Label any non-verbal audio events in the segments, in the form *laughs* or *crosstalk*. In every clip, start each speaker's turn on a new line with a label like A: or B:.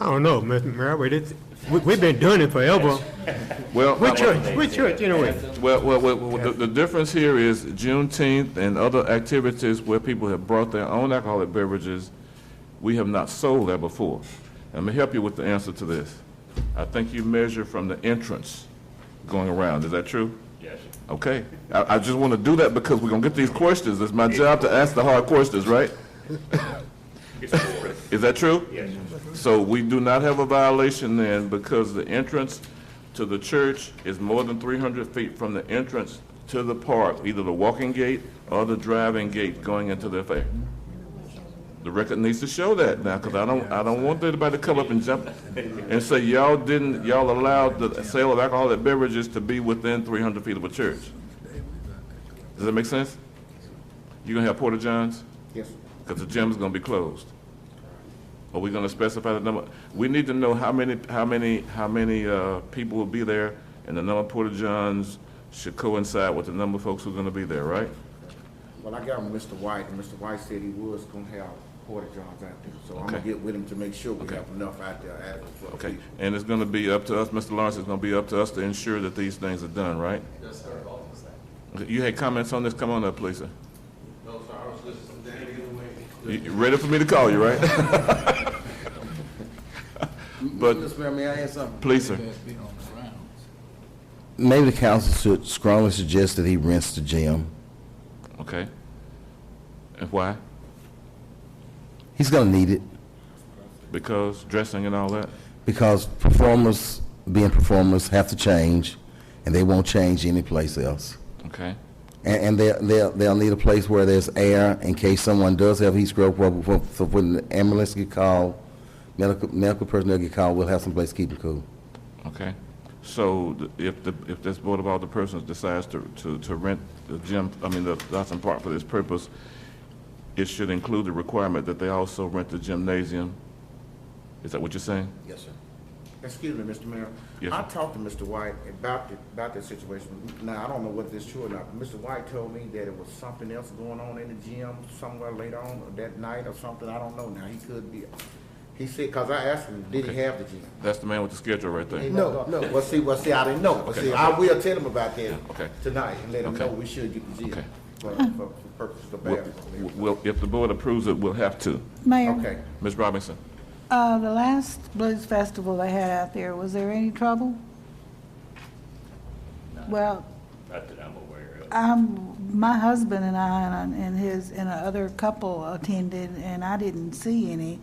A: don't know, Mr. Marwood, it's, we, we've been doing it forever.
B: Well, uh,
A: What church, what church, anyway?
B: well, well, well, well, the, the difference here is Juneteenth and other activities where people have brought their own alcoholic beverages, we have not sold that before. Let me help you with the answer to this. I think you measure from the entrance going around, is that true? Yes. Okay, I, I just want to do that because we're gonna get these questions, it's my job to ask the hard questions, right? Is that true? Yes. So we do not have a violation then because the entrance to the church is more than 300 feet from the entrance to the park, either the walking gate or the driving gate going into the affair. The record needs to show that now, because I don't, I don't want anybody to come up and jump and say, y'all didn't, y'all allowed the sale of alcoholic beverages to be within 300 feet of a church. Does that make sense? You gonna have Porter Johns?
C: Yes.
B: Because the gym's gonna be closed. Are we gonna specify the number? We need to know how many, how many, how many, uh, people will be there, and the number of porta johns should coincide with the number of folks who are gonna be there, right?
C: Well, I got with Mr. White, and Mr. White said he was gonna have porta johns out there, so I'm gonna
B: Okay.
C: get with him to make sure we have enough out there adequate for the
B: Okay,
C: people.
B: and it's gonna be up to us, Mr. Lawrence, it's gonna be up to us to ensure that these things are done, right? Yes, sir, You had comments on this, come on up, please, sir. No, sir, I was listening to Danny. You, you ready for me to call you, right? *laughs* But-
D: Mr. Mayor, may I add something?
B: Please, sir.
D: Maybe the council should strongly suggest that he rents the gym.
B: Okay. And why?
D: He's gonna need it,
B: Because dressing and all that?
D: because performers, being performers, have to change, and they won't change anyplace else.
B: Okay,
D: And, and they'll, they'll, they'll need a place where there's air in case someone does have heat stroke, where- where- so when the ambulance get called, medical, medical personnel get called, we'll have some place to keep them cool.
B: okay. So th- if the, if this Board of Alder Persons decides to, to, to rent the gym, I mean, the Dotson Park for this purpose, it should include the requirement that they also rent the gymnasium? Is that what you're saying?
D: Yes, sir.
C: Excuse me, Mr. Mayor.
B: Yes,
C: I
B: sir.
C: talked to Mr. White about the, about that situation. Now, I don't know whether it's true or not. Mr. White told me that it was something else going on in the gym somewhere later on that night or something. I don't know now. He could be, he said, cause I asked him, did he
B: Okay.
C: have the gym?
B: That's the man with the schedule right there.
C: No, no. Well, see, well, see, I didn't know. But see, I will tell him about that
B: okay.
C: tonight and let him
B: Okay.
C: know we should get the gym
B: Okay.
C: for, for, for purposes of
B: Well,
C: bathroom.
B: well, if the board approves it, we'll have to.
E: Mayor,
C: Okay.
B: Ms. Robinson?
E: uh, the last blues festival they had out there, was there any trouble? Well,
F: Not that I'm aware of.
E: um, my husband and I and- and his, and another couple attended, and I didn't see any.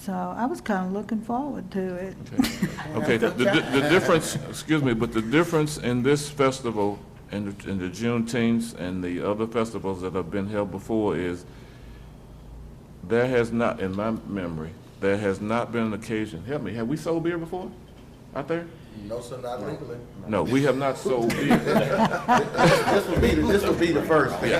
E: So I was kind of looking forward to it.
B: Okay, the, the the difference, excuse me, but the difference in this festival and, the- and the Juneteenth and the other festivals that have been held before is there has not, in my memory, there has not been an occasion, help me, have we sold beer before out there?
D: No, sir, not legally.
B: No, we have not sold beer.
C: This will be, the- this will be the first.
B: And,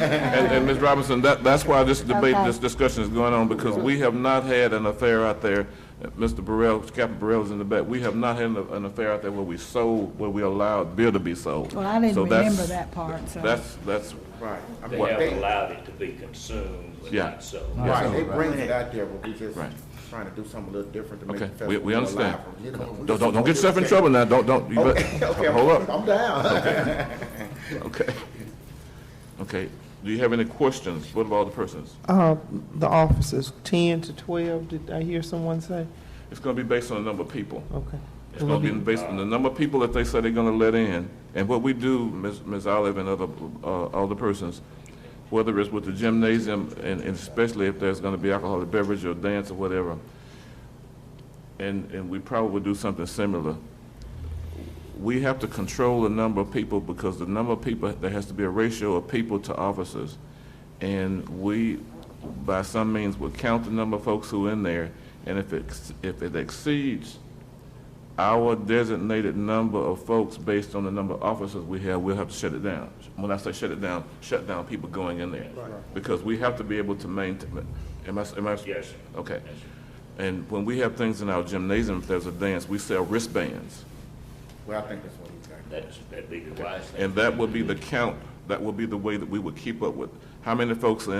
B: and Ms. Robinson, that, that's why this debate,
E: Okay.
B: this discussion is going on, because we have not had an affair out there. Uh, Mr. Burrell, Captain Burrell is in the back, we have not had an an affair out there where we sold, where we allowed beer to be sold.
E: Well, I didn't
B: So that's-
E: remember that part, so.
B: That's, that's,
C: Right. I
F: They
C: mean,
F: have allowed it to be consumed, but
B: Yeah.
F: not sold.
C: Right, they bring it out there, but we just
B: Right.
C: trying to do something a little different to make the
B: okay,
C: festival.
B: we, we
C: more
B: understand.
C: lively, you know?
B: Don't, don't, don't get yourself in trouble now, don't, don't, you bet-
C: Okay, okay, I'm-
B: hold up,
C: I'm down.
B: okay. Okay, do you have any questions, what about the persons?
G: Uh, The officers, 10 to 12, did I hear someone say?
B: It's gonna be based on the number of people.
G: Okay.
B: It's gonna be based on the number of people that they say they're gonna let in. And what we do, Ms. Ms. Olive and other, uh, other persons, whether it's with the gymnasium, and, and especially if there's gonna be alcoholic beverage or dance or whatever, and, and we probably would do something similar. We have to control the number of people because the number of people, there has to be a ratio of people to officers. And we, by some means, will count the number of folks who are in there, and if it, ex- if it exceeds our designated number of folks based on the number of officers we have, we'll have to shut it down. When I say shut it down, shut down people going in there. Because we have to be able to maintain, am I, am I?
F: Yes, sir.
B: Okay. And when we have things in our gymnasium, if there's a dance, we sell wristbands.
C: Well, I think that's what he's got.
F: That's, that'd be the wise thing.
B: And that would be the count, that would be the way that we would keep up with how many folks are in